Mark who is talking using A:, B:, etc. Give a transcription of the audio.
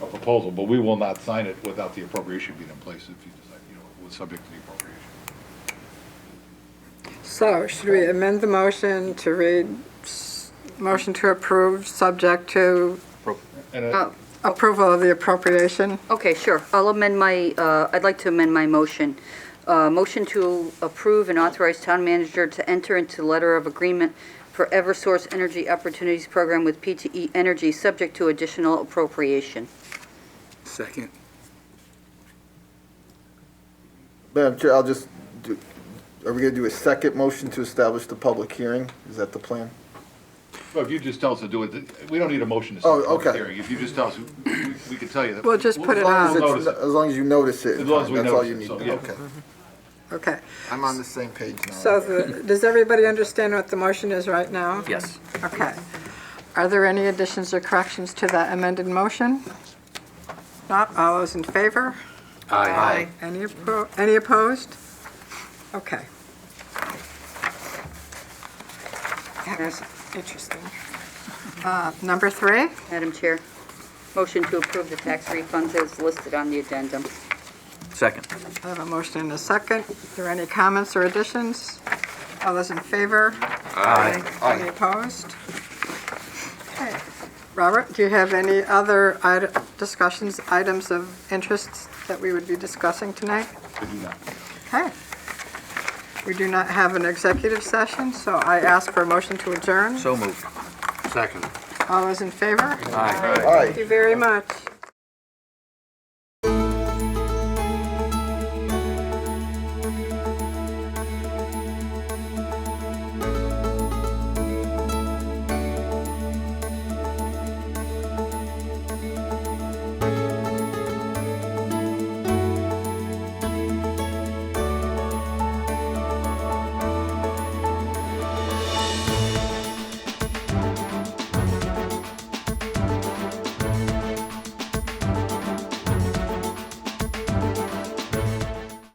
A: proposal, but we will not sign it without the appropriation being in place if you decide, you know, was subject to the appropriation.
B: So should we amend the motion to read, s- motion to approve, subject to
A: And
B: uh,
A: it-
B: approval of the appropriation?
C: Okay, sure. I'll amend my, uh, I'd like to amend my motion. Uh, Motion to approve and authorize town manager to enter into letter of agreement for Eversource Energy Opportunities Program with PTE Energy, subject to additional appropriation.
D: Second.
E: Madam Chair, I'll just, do. are we going to do a second motion to establish the public hearing? Is that the plan?
B: Oh.
A: Well, if you just tell us to do it, we don't need a motion to
E: Oh,
A: set a public
E: okay.
A: hearing. If you just tell us, we- we can tell you that.
B: We'll just put it
E: As long as
B: on.
A: We'll
E: it's-
A: notice it.
E: As long as you notice it, in
A: As long as
E: time,
A: we
E: that's all
A: notice
E: you
A: it,
E: need.
A: so, yeah.
E: Okay.
B: Okay.
E: I'm on the same page now.
B: So the- does everybody understand what the motion is right now?
D: Yes.
B: Okay. Are there any additions or corrections to that amended motion? Not, all those in favor?
D: Aye.
B: Any appro, any opposed? Okay. That was interesting. Uh, Number three,
C: Madam Chair, motion to approve the tax refunds as listed on the addendum.
D: Second.
B: I have a motion and a second. Are there any comments or additions? All those in favor? Aye. Any opposed? Okay. Robert, do you have any other ite- discussions, items of interest that we would be discussing tonight?
A: We do not.
B: Okay. We do not have an executive session, so I ask for a motion to adjourn.
D: So moved.
B: All those in favor?
E: Aye.
B: Thank you very much.